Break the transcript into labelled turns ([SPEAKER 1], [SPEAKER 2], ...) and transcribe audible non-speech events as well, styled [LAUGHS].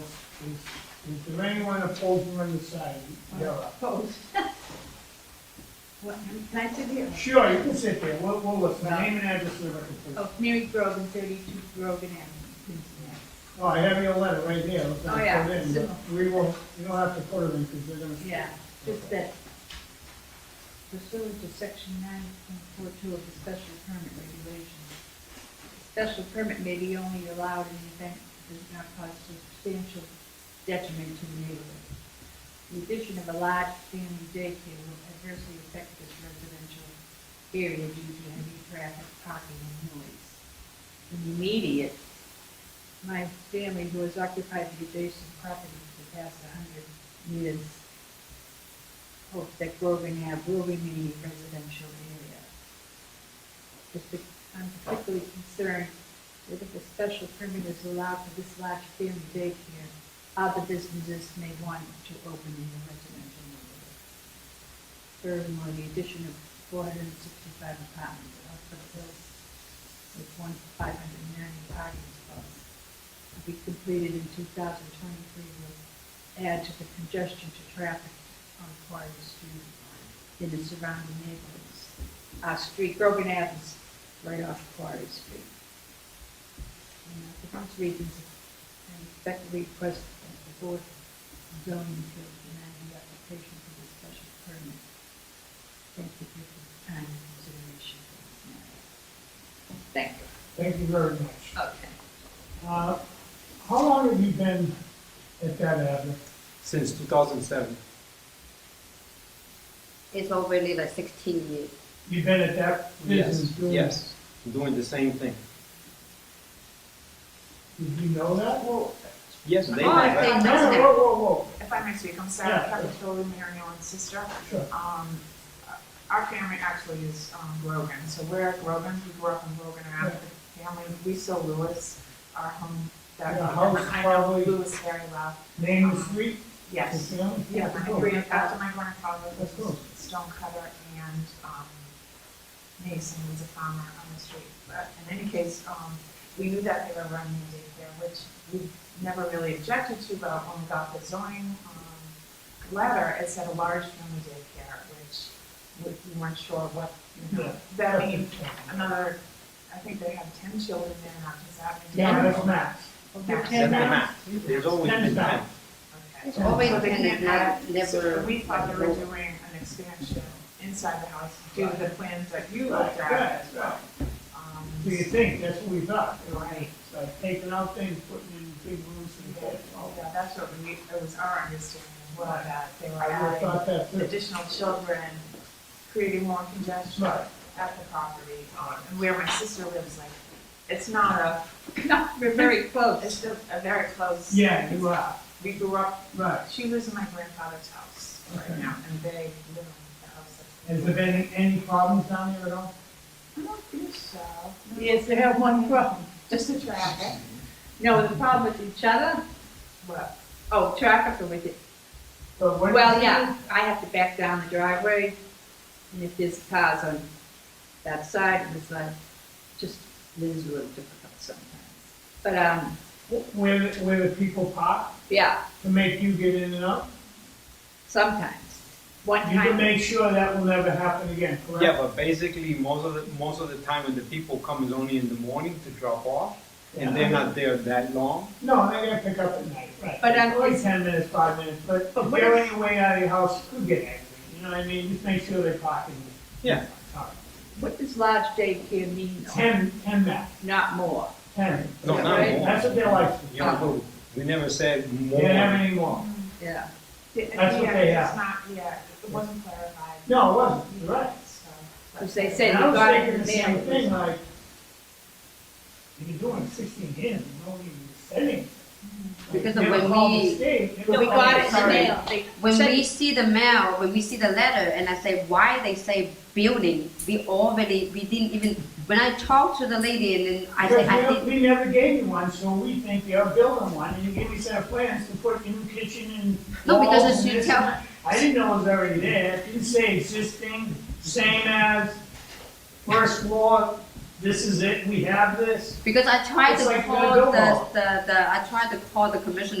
[SPEAKER 1] Is, is there anyone opposed or undecided? You're up.
[SPEAKER 2] [LAUGHS] Opposed? What, nice of you.
[SPEAKER 1] Sure, you can sit there, we'll, we'll listen, name and address of the record, please.
[SPEAKER 2] Oh, Mary Grogan, thirty-two Grogan Avenue, Cincinnati.
[SPEAKER 1] Oh, I have your letter right here, let's not
[SPEAKER 2] Oh, yeah.
[SPEAKER 1] put it in, but we won't, we don't have to put it in, because they're gonna.
[SPEAKER 2] Yeah, just that pursuant to section nine point four two of the special permit regulations, special permit may be only allowed in the event it does not cause substantial detriment to the neighborhood. The addition of a large family daycare will adversely affect this residential area due to heavy traffic, parking, and noise. In the immediate, my family who has occupied the adjacent property for the past hundred years hope that Grogan Ave will remain a residential area. Just that I'm particularly concerned that if a special permit is allowed for this large family daycare, other businesses may want to open in the residential neighborhood. Furthermore, the addition of four hundred and sixty-five apartments at Upper Hills with one five hundred and ninety parking spots to be completed in two thousand twenty-three will add to the congestion to traffic on Quarry Street in the surrounding neighborhoods. Our street, Grogan Avenue's right off Quarry Street. And uh, for those reasons, I respectfully request that the board of zoning appeals deny the application for this special permit. Thank you for your time and consideration. Thank you.
[SPEAKER 1] Thank you very much.
[SPEAKER 2] Okay.
[SPEAKER 1] Uh, how long have you been at that address?
[SPEAKER 3] since 2007.
[SPEAKER 4] It's already like sixteen years.
[SPEAKER 1] You've been at that business doing?
[SPEAKER 3] Yes, doing the same thing.
[SPEAKER 1] Did you know that? Well,
[SPEAKER 3] Yes, they
[SPEAKER 5] Oh, I
[SPEAKER 3] have.
[SPEAKER 5] think-
[SPEAKER 1] no, no, whoa, whoa,
[SPEAKER 5] If I may speak, I'm Sarah
[SPEAKER 1] Yeah.
[SPEAKER 5] Capitoli, Mary Ellen's sister.
[SPEAKER 1] whoa, sure.
[SPEAKER 5] Um, our family actually is, um, Grogan, so we're at Grogan, we grew up in Grogan, and our family, we saw Lewis, our home, that.
[SPEAKER 1] Yeah, house
[SPEAKER 5] I know
[SPEAKER 1] probably-
[SPEAKER 5] Lewis very well,
[SPEAKER 1] Name the street, the
[SPEAKER 5] yes.
[SPEAKER 1] family?
[SPEAKER 5] Yeah, my
[SPEAKER 1] Cool.
[SPEAKER 5] grandfather, after my grandfather
[SPEAKER 1] That's
[SPEAKER 5] was
[SPEAKER 1] cool.
[SPEAKER 5] a stonecutter and, um, Mason was a farmer on the street. But in any case, um, we knew that they were running a daycare, which we never really objected to, but when we got the zoning, um, letter, it said a large family daycare, which we we weren't sure what, you know,
[SPEAKER 1] Yeah.
[SPEAKER 5] that means another, I think they have ten children there, now, does that mean?
[SPEAKER 1] Yeah, that's max.
[SPEAKER 5] Yeah.
[SPEAKER 3] That's the map. There's always
[SPEAKER 1] Ten is
[SPEAKER 3] been
[SPEAKER 1] not.
[SPEAKER 3] that.
[SPEAKER 5] Okay.
[SPEAKER 4] It's always
[SPEAKER 5] So they
[SPEAKER 4] been
[SPEAKER 5] can't
[SPEAKER 4] that,
[SPEAKER 5] add- so
[SPEAKER 4] never.
[SPEAKER 5] We thought they were doing an expansion inside the house due to the plans that you looked at.
[SPEAKER 1] Right, right.
[SPEAKER 5] Um,
[SPEAKER 1] Do you think, that's what we thought.
[SPEAKER 5] Right.
[SPEAKER 1] It's like taking out things, putting in big rooms and that.
[SPEAKER 5] Yeah, that's what we, it was our understanding, as well, that they were
[SPEAKER 1] I would've
[SPEAKER 5] adding
[SPEAKER 1] thought that too.
[SPEAKER 5] additional children, creating more congestion
[SPEAKER 1] Right.
[SPEAKER 5] at the property. um, And where my sister lives, like, it's not a, [LAUGHS]
[SPEAKER 2] No, we're very
[SPEAKER 5] it's
[SPEAKER 2] close.
[SPEAKER 5] still a very close.
[SPEAKER 1] Yeah, you are,
[SPEAKER 5] We grew up,
[SPEAKER 1] right.
[SPEAKER 5] she lives in my grandfather's house right
[SPEAKER 1] Okay.
[SPEAKER 5] now, and they live in the house. that's-
[SPEAKER 1] Has there been any problems down there at all?
[SPEAKER 5] I don't think so.
[SPEAKER 2] Yes, they have one problem.
[SPEAKER 5] Just the traffic.
[SPEAKER 2] No, the problem with each other,
[SPEAKER 5] What?
[SPEAKER 2] oh, traffic or with it.
[SPEAKER 1] But what-
[SPEAKER 2] Well, yeah, I have to back down the driveway, and if there's cars on that side, it's like, just, it is a little difficult sometimes. But, um,
[SPEAKER 1] Where, the- where the people park
[SPEAKER 2] yeah,
[SPEAKER 1] to make you get in and out?
[SPEAKER 2] sometimes. One
[SPEAKER 1] You can
[SPEAKER 2] time,
[SPEAKER 1] make sure that will never happen again, correct?
[SPEAKER 3] Yeah, but basically, most of the, most of the time when the people come is only in the morning to drop off, and they're not there that long.
[SPEAKER 1] No, they gotta pick up at night, right.
[SPEAKER 2] But I'm-
[SPEAKER 1] It's Only ten minutes, five minutes, but
[SPEAKER 2] But
[SPEAKER 1] if
[SPEAKER 2] what
[SPEAKER 1] they're
[SPEAKER 2] if-
[SPEAKER 1] on your way out of your house, you could get angry, you know what I mean? Just make sure they park in.
[SPEAKER 3] Yeah.
[SPEAKER 1] All right.
[SPEAKER 2] what does large daycare mean? though?
[SPEAKER 1] Ten, ten max,
[SPEAKER 2] Not more.
[SPEAKER 1] ten.
[SPEAKER 3] No,
[SPEAKER 2] Yeah,
[SPEAKER 3] not
[SPEAKER 2] right.
[SPEAKER 3] more.
[SPEAKER 1] That's what they like,
[SPEAKER 3] You know, we never said
[SPEAKER 1] they
[SPEAKER 3] more.
[SPEAKER 1] don't have any more.
[SPEAKER 2] Yeah,
[SPEAKER 1] That's what they
[SPEAKER 5] Yeah,
[SPEAKER 1] have.
[SPEAKER 5] It's not, yeah, it wasn't clarified.
[SPEAKER 1] No, it wasn't, you're right.
[SPEAKER 5] So.
[SPEAKER 2] because they say you
[SPEAKER 1] And I was
[SPEAKER 2] got
[SPEAKER 1] thinking
[SPEAKER 2] it
[SPEAKER 1] the same thing,
[SPEAKER 2] there.
[SPEAKER 1] like, if you're doing sixteen hands, you don't even say anything.
[SPEAKER 4] Because
[SPEAKER 1] They
[SPEAKER 4] when
[SPEAKER 1] don't call
[SPEAKER 4] we-
[SPEAKER 1] the state, they
[SPEAKER 2] No,
[SPEAKER 1] don't
[SPEAKER 2] we
[SPEAKER 1] call
[SPEAKER 2] got
[SPEAKER 1] the
[SPEAKER 2] it in the
[SPEAKER 1] sorry.
[SPEAKER 2] mail. They
[SPEAKER 4] When
[SPEAKER 2] said-
[SPEAKER 4] we see the mail, when we see the letter, and I say, why they say building, we already, we didn't even, when I talked to the lady and then I
[SPEAKER 1] Because
[SPEAKER 4] say,
[SPEAKER 1] we
[SPEAKER 4] I
[SPEAKER 1] don't-
[SPEAKER 4] did,
[SPEAKER 1] we never gave you one, so we think you're building one, and you give me a set of plans to put new kitchen and
[SPEAKER 4] No,
[SPEAKER 1] walls
[SPEAKER 4] because
[SPEAKER 1] and
[SPEAKER 4] you
[SPEAKER 1] this
[SPEAKER 4] tell-
[SPEAKER 1] and that. I didn't know it was already there, it didn't say existing, same as, first floor, this is it, we have this.
[SPEAKER 4] because I tried
[SPEAKER 1] It's
[SPEAKER 4] to
[SPEAKER 1] like
[SPEAKER 4] call
[SPEAKER 1] no
[SPEAKER 4] the,
[SPEAKER 1] more.
[SPEAKER 4] the, the, I tried to call the commissioner